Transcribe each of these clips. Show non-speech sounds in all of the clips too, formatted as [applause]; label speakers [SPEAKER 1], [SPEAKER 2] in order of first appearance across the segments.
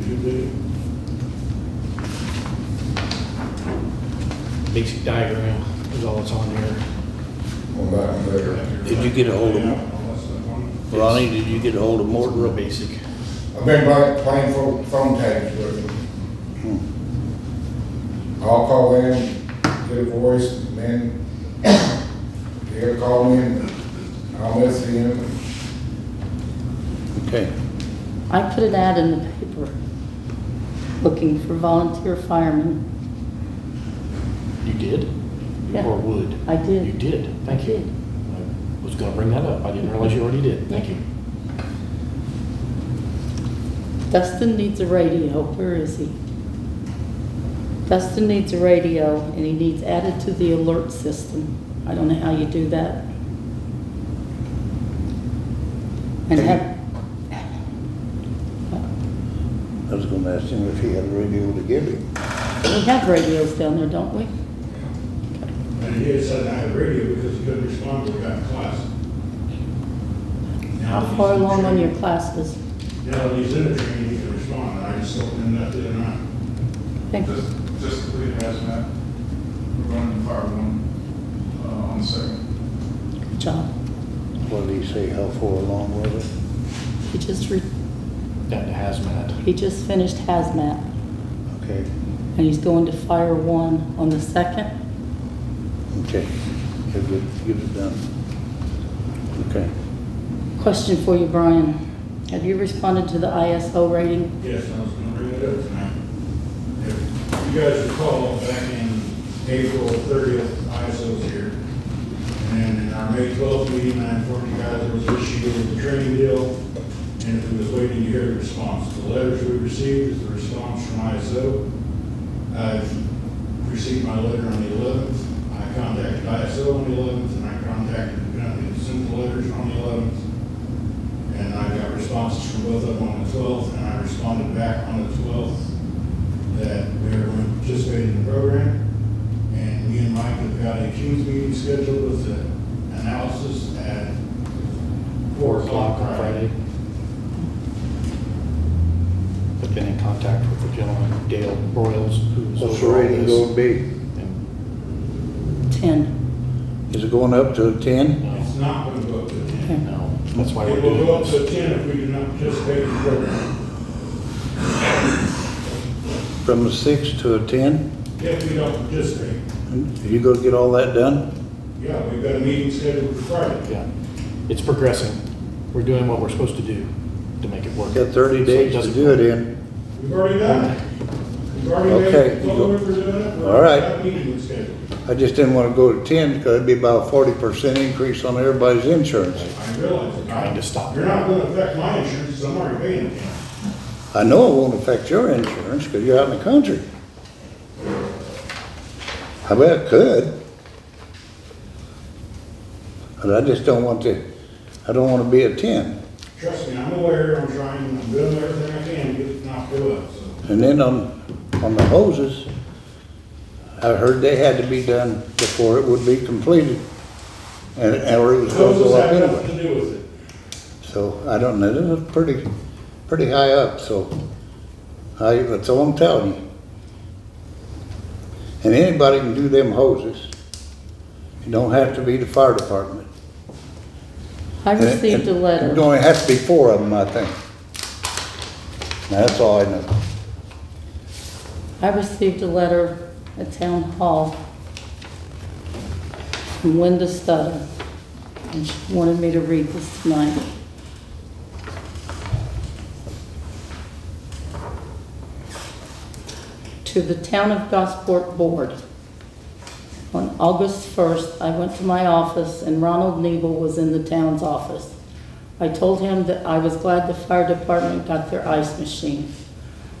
[SPEAKER 1] the basic diagram is all that's on there.
[SPEAKER 2] on that there.
[SPEAKER 3] Did you get a hold of, Ronnie, did you get a hold of
[SPEAKER 1] It's Real
[SPEAKER 3] Morton?
[SPEAKER 1] basic.
[SPEAKER 2] I've been playing, playing phone, phone tags with them. Hmm. I'll call in, get a voice, and then [coughs] they'll call me and I'll listen in.
[SPEAKER 3] Okay,
[SPEAKER 4] I put an ad in the paper looking for volunteer firemen.
[SPEAKER 1] You did?
[SPEAKER 4] Yeah.
[SPEAKER 1] Or would?
[SPEAKER 4] I did.
[SPEAKER 1] You did, thank
[SPEAKER 4] I
[SPEAKER 1] you.
[SPEAKER 4] did.
[SPEAKER 1] I was gonna bring that up, I didn't realize you already did, thank you.
[SPEAKER 4] Dustin needs a radio. Where is he? Dustin needs a radio and he needs added to the alert system. I don't know how you do that. And have,
[SPEAKER 3] I was gonna ask him if he had a radio to give him.
[SPEAKER 4] we have radios down there, don't we?
[SPEAKER 5] And he had said I had radio because he couldn't respond when we got in class.
[SPEAKER 4] How far along on your classes?
[SPEAKER 5] Now that he's in the training, he can respond, I just told him that the other night.
[SPEAKER 4] Thank you.
[SPEAKER 6] Just, just to leave hazmat, we're running fire one, uh, on the second.
[SPEAKER 4] Good job.
[SPEAKER 3] What did he say, how far along was it?
[SPEAKER 4] He just, re-
[SPEAKER 1] Down to hazmat.
[SPEAKER 4] he just finished hazmat
[SPEAKER 3] Okay,
[SPEAKER 4] and he's going to fire one on the second.
[SPEAKER 3] okay, get it, get it done. Okay,
[SPEAKER 4] Question for you, Brian. Have you responded to the ISO rating?
[SPEAKER 5] Yes, I was gonna bring it up tonight. If you guys recall, back in April thirtieth, ISO was here. And in our May twelfth meeting, I informed you guys there was an issue with the training deal, and if we was waiting to hear the response. The letters we received is the response from ISO. I've received my letter on the eleventh, I contacted ISO on the eleventh, and I contacted the company that sent the letters on the eleventh. And I got responses from both of them on the twelfth, and I responded back on the twelfth that everyone participated in the program. And me and Mike have got a Q's meeting scheduled with the analysis at
[SPEAKER 1] Four o'clock on Friday.
[SPEAKER 4] Mm-hmm.
[SPEAKER 1] I've been in contact with the gentleman, Dale Broyles, who's
[SPEAKER 3] what's the
[SPEAKER 1] over all
[SPEAKER 3] rating gonna
[SPEAKER 1] this.
[SPEAKER 3] be?
[SPEAKER 1] And,
[SPEAKER 4] 10.
[SPEAKER 3] Is it going up to ten?
[SPEAKER 1] no,
[SPEAKER 5] It's not going to go up to ten.
[SPEAKER 1] no, that's why we're
[SPEAKER 5] It will
[SPEAKER 1] doing
[SPEAKER 5] go up
[SPEAKER 1] this.
[SPEAKER 5] to ten if we do not participate in the program.
[SPEAKER 3] From a six to a ten?
[SPEAKER 5] If we don't participate,
[SPEAKER 3] You gonna get all that done?
[SPEAKER 5] yeah, we've got a meeting scheduled for Friday.
[SPEAKER 1] Yeah, it's progressing. We're doing what we're supposed to do to make it work.
[SPEAKER 3] Got thirty
[SPEAKER 1] So
[SPEAKER 3] days to
[SPEAKER 1] doesn't-
[SPEAKER 3] do it in.
[SPEAKER 5] We've already done it. We've already made
[SPEAKER 3] Okay,
[SPEAKER 5] it,
[SPEAKER 3] you
[SPEAKER 5] told
[SPEAKER 3] go.
[SPEAKER 5] them we're doing it. We've
[SPEAKER 3] All right.
[SPEAKER 5] got a meeting scheduled.
[SPEAKER 3] I just didn't wanna go to ten, because it'd be about a forty percent increase on everybody's insurance.
[SPEAKER 5] I realize it.
[SPEAKER 1] Trying to stop
[SPEAKER 5] You're not gonna affect my insurance, 'cause I'm already paying it.
[SPEAKER 3] I know it won't affect your insurance because you're out in the country. I bet it could. But I just don't want to, I don't want to be a ten.
[SPEAKER 5] Trust me, I'm aware, I'm trying, I'm doing everything I can to get it knocked out, so.
[SPEAKER 3] And then on, on the hoses, I heard they had to be done before it would be completed. And, or it was going to
[SPEAKER 5] Those
[SPEAKER 3] go up
[SPEAKER 5] have nothing
[SPEAKER 3] anyway.
[SPEAKER 5] to do with it.
[SPEAKER 3] So I don't know, this is pretty, pretty high up, so I, that's all I'm telling you. And anybody can do them hoses. You don't have to be the fire department. Uh,
[SPEAKER 4] I received a
[SPEAKER 3] There
[SPEAKER 4] letter.
[SPEAKER 3] only has to be four of them, I think. Now, that's all I know.
[SPEAKER 4] I received a letter at Town Hall from Linda Stutter, and she wanted me to read this tonight. To the Town of Gosport Board. On August 1st, I went to my office and Ronald Nebel was in the town's office. I told him that I was glad the fire department got their ice machine.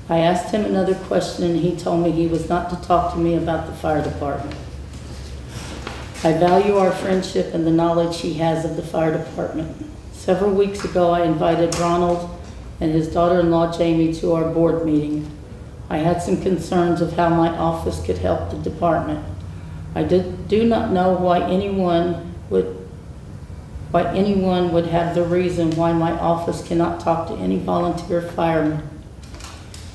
[SPEAKER 4] I asked him another question and he told me he was not to talk to me about the fire department. I value our friendship and the knowledge he has of the fire department. Several weeks ago, I invited Ronald and his daughter-in-law Jamie to our board meeting. I had some concerns of how my office could help the department. I did, do not know why anyone would, why anyone would have the reason why my office cannot talk to any volunteer firemen